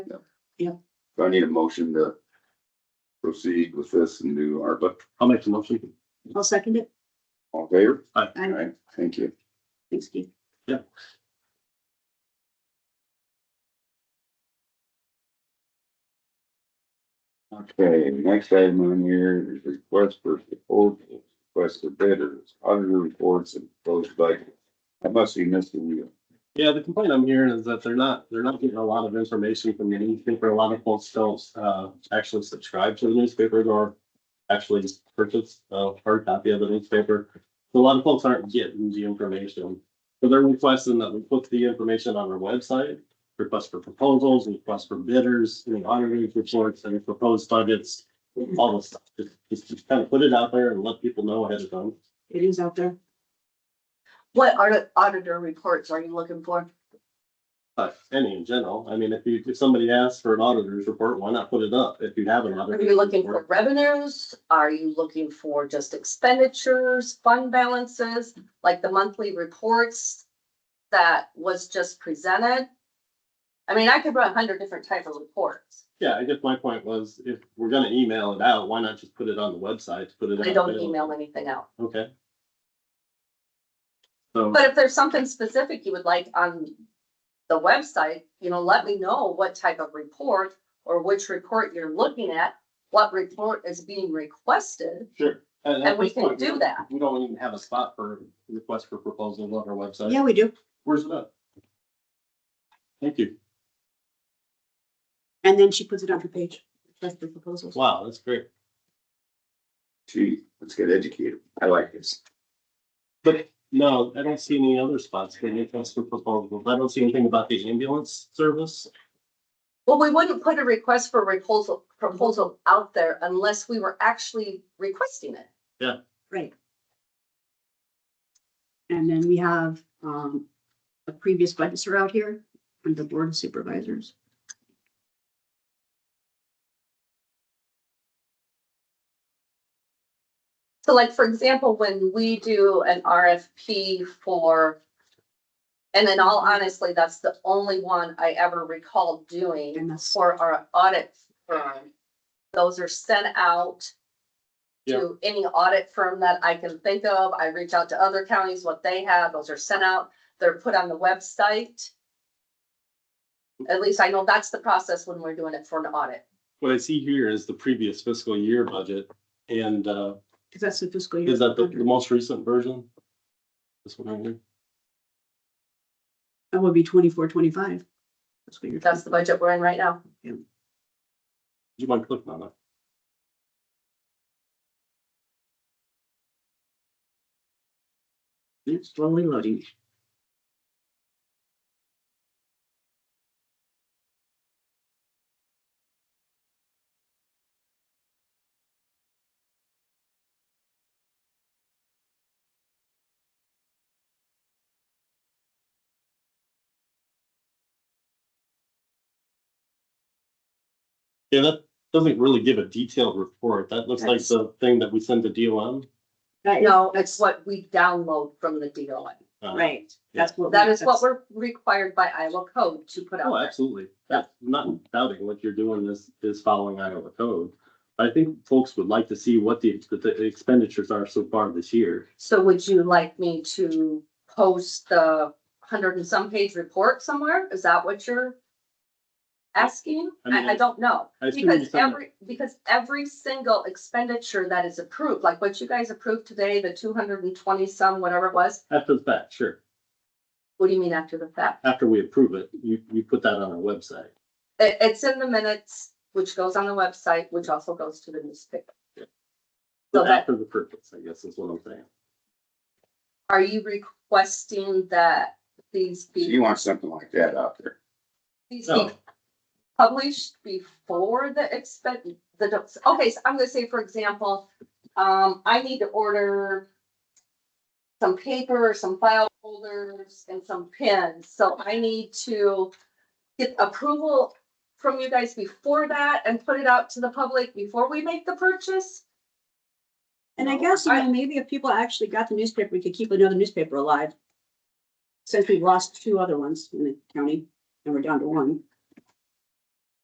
Yep. So I need a motion to proceed with this and do ARPA. I'll make the motion. I'll second it. All in favor? All I, right, thank you. thanks, Steve. Okay, next item on here is request for proposals, request for bidders, auditor reports and proposed budget. I must be missing you. Yeah, the complaint I'm hearing is that they're not, they're not getting a lot of information from the newspaper. A lot of folks don't, uh, actually subscribe to the newspaper or actually purchase a hard copy of the newspaper. So A lot of folks aren't getting the information. So they're requesting that we put the information on our website, request for proposals, request for bidders, any auditing reports and proposed budgets, all this stuff. Just- Just, just kind of put it out there and let people know ahead of time. It is out there. What audit, auditor reports are you looking for? But any in general, I mean, if you, if somebody asks for an auditor's report, why not put it up if you have an auditor? Are you looking for revenues? Are you looking for just expenditures, fund balances, like the monthly reports that was just presented? I mean, I could run a hundred different type of reports. Yeah, I guess my point was, if we're gonna email it out, why not just put it on the website, put it? I out don't there? email anything out. Okay. So, But if there's something specific you would like on the website, you know, let me know what type of report or which report you're looking at, what report is being requested. sure. at- at And we this can point, do don't- that. We don't even have a spot for request for proposals on our website. Yeah, we do. Where's it at? Thank you. And then she puts it on her page. That's the proposals. Wow, that's great. Gee, let's get educated. I like this. But no, I don't see any other spots for request for proposals. I don't see anything about the ambulance service. Well, we wouldn't put a request for proposal, proposal out there unless we were actually requesting it. Right. And then we have, um, the previous budgets are out here and the board of supervisors. So like, for example, when we do an RFP for, and in all honestly, that's the only one I ever recall doing. And that's, for our audit firm. Those are sent out to any audit firm that I can think of. I reach out to other counties, what they have, those are sent out. They're put on the website. At least I know that's the process when we're doing it for an audit. What I see here is the previous fiscal year budget and, uh, because that's the fiscal year. Is that the, the most recent version? This one right here? That would be twenty-four, twenty-five. Fiscal year That's the budget we're in right now. Do you mind clicking on that? It's slowly loading. Yeah, that doesn't really give a detailed report. That looks like That's- the thing that we send to DOM. That is- No, it's that's- what we download from the DOI. Uh, Right, that's what. we- That is what that's- we're required by Iowa code to put out. Oh, there. absolutely. That's not doubting what you're doing is, is following Iowa code. I think folks would like to see what the, the expenditures are so far this year. So would you like me to post the hundred and some page report somewhere? Is that what you're asking? I mean, I, I don't know. I assume you Because said that- every, because every single expenditure that is approved, like what you guys approved today, the two hundred and twenty some, whatever it was, After the fact, sure. what do you mean after the fact? After we approve it, you, you put that on our website. It, it's in the minutes, which goes on the website, which also goes to the newspaper. So that, After the purpose, I guess is what I'm saying. are you requesting that these So be? you want something like that out there. These No. be published before the expect, the, docs- okay, so I'm gonna say, for example, um, I need to order some paper, or some file folders and some pins, so I need to get approval from you guys before that and put it out to the public before we make the purchase? And I guess, you know, maybe if people actually got the newspaper, we could keep another newspaper alive. Since we've lost two other ones in the county and we're down to one.